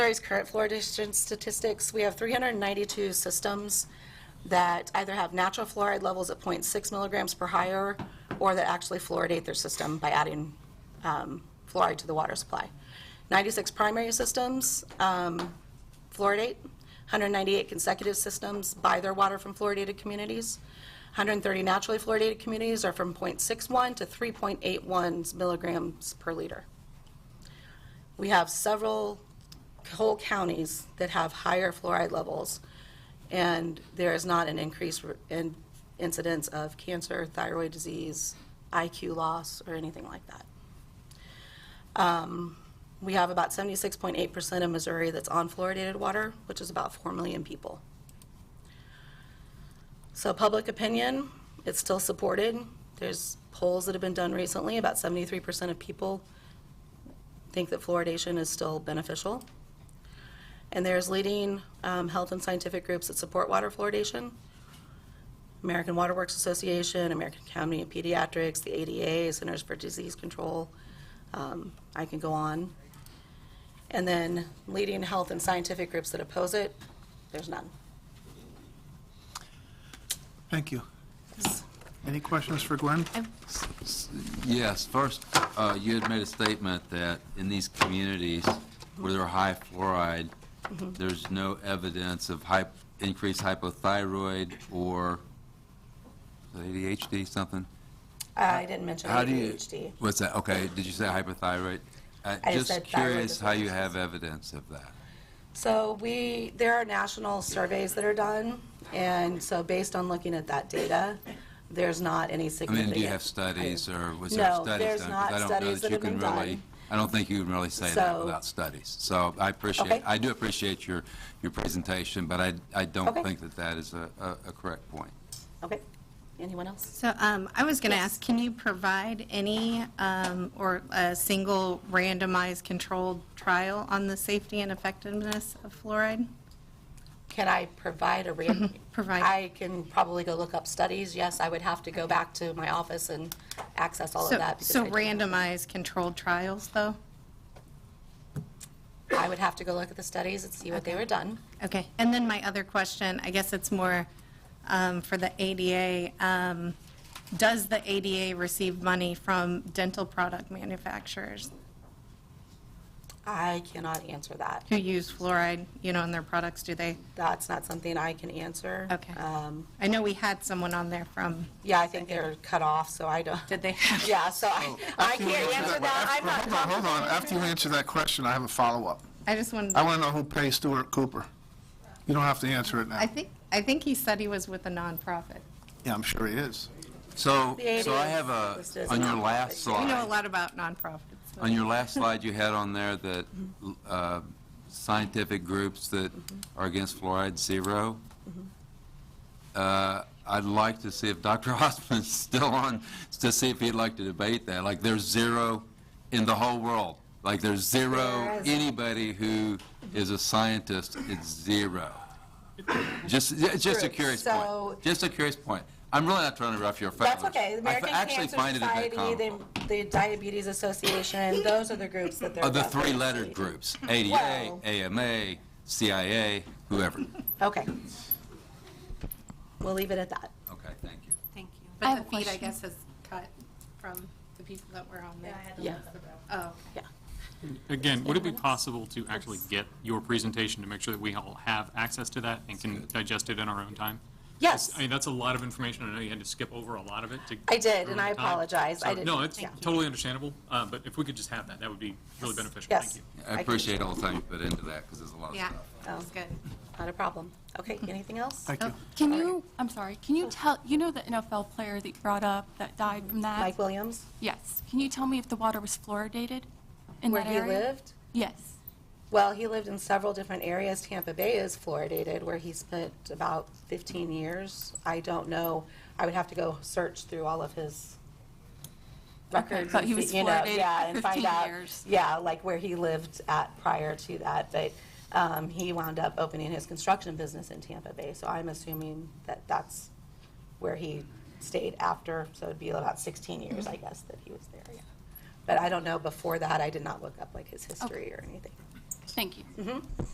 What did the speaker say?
Missouri's current fluoridation statistics, we have 392 systems that either have natural fluoride levels at .6 milligrams per higher, or that actually fluoridate their system by adding um, fluoride to the water supply. 96 primary systems um, fluoridate, 198 consecutive systems buy their water from fluoridated communities, 130 naturally fluoridated communities are from .61 to 3.81 milligrams per liter. We have several whole counties that have higher fluoride levels, and there is not an increase in incidence of cancer, thyroid disease, IQ loss, or anything like that. Um, We have about 76.8% of Missouri that's on fluoridated water, which is about 4 million people. So public opinion, it's still supported. There's polls that have been done recently, about 73% of people think that fluoridation is still beneficial. And there's leading um, health and scientific groups that support water fluoridation. American Water Works Association, American Academy of Pediatrics, the ADA, Centers for Disease Control. Um, I can go on. And then leading health and scientific groups that oppose it, there's none. Thank you. Any questions for Gwen? Yes, first, uh, you had made a statement that in these communities where there are high fluoride, Mm-hmm. there's no evidence of hy- increased hypothyroid or ADHD something? I didn't mention How do you- ADHD. What's that? Okay, did you say hypothyroid? Uh, I just said Just thyroid curious how you dysfunction. have evidence of that. So we, there are national surveys that are done, and so based on looking at that data, there's not any I significant. mean, do you have studies or was there No, studies done? there's 'Cause not I don't know studies that you have can been really- done. I don't think you can really say So- that without studies. So I Okay. appreciate, I do appreciate your, your presentation, but I, I don't Okay. think that that is a, a- a correct point. Okay, anyone else? So um, I was going to ask, can you provide any um, or a single randomized controlled trial on the safety and effectiveness of fluoride? Can I provide a random? Provide. I can probably go look up studies, yes, I would have to go back to my office and access all of So- that. because I So didn't- randomized controlled trials, though? I would have to go look at the studies and see what they were done. Okay, and then my other question, I guess it's more um, for the ADA. um, Does the ADA receive money from dental product manufacturers I cannot answer that. who use fluoride, you know, in their products? Do they? That's not something I can answer. Okay. Um, I know we had someone on there from, Yeah, I think they're cut off, so I don't. did they have? Yeah, so Oh, I, I can't answer that. I'm not Hold on, hold on. After you answer that question, I have a follow-up. I just wanted. to- I want to know who pays Stuart Cooper. You don't have to answer it I now. think, I think he said he was with a nonprofit. Yeah, I'm sure he is. So, The so I ADA have a, listed as a on your nonprofit. last We know a slide, lot about nonprofits. so- on your last slide, you had on there that uh, scientific groups that are against fluoride, zero. Uh, I'd like to see if Dr. Hoffman's still on, to see if he'd like to debate that. Like, there's zero in the whole world. Like, there's zero, There is. anybody who is a scientist, it's zero. Just, yeah, it's just a True. curious So- point. Just a curious point. I'm really not trying to rough your feathers. That's okay. I The American actually Cancer find it a bit Society, the, comical. the Diabetes Association, those are the groups that they're. Of the referencing. three-lettered groups, ADA, Well- AMA, CIA, whoever. Okay. We'll leave it at that. Okay, thank you. Thank you. But the feed, I guess, is cut from the people that were on there. Yeah. Oh, Yeah. Again, would it be possible to actually get your presentation to make sure that we all have access to that and can digest it in our own time? Yes. I mean, that's a lot of information. I know you had to skip over a lot of it to. I did, for and I time. apologize. I So, didn't- No, it's Thank you. totally understandable, uh, but if we could just have that, that would be really beneficial. Yes. Thank you. I can- I appreciate all the time you put into that, because there's a lot of yeah, stuff. that was good. Not a problem. Okay, anything else? Thank you. Can you, I'm sorry, can you tell, you know the NFL player that you brought up that died from that? Mike Williams, Yes. Can you tell me if the water was fluoridated in where that he area? lived? Yes. Well, he lived in several different areas. Tampa Bay is fluoridated, where he spent about 15 years. I don't know. I would have to go search through all of his Okay, records. but and he was see- you know, fluoridated yeah, for and find 15 out- years. Yeah, like where he lived at prior to that. But um, he wound up opening his construction business in Tampa Bay, so I'm assuming that that's where he stayed after. So it'd be about 16 years, Mm-hmm. I guess, that he was there. Yeah. But I don't know. Before that, I did not look up like his history or anything. Thank you.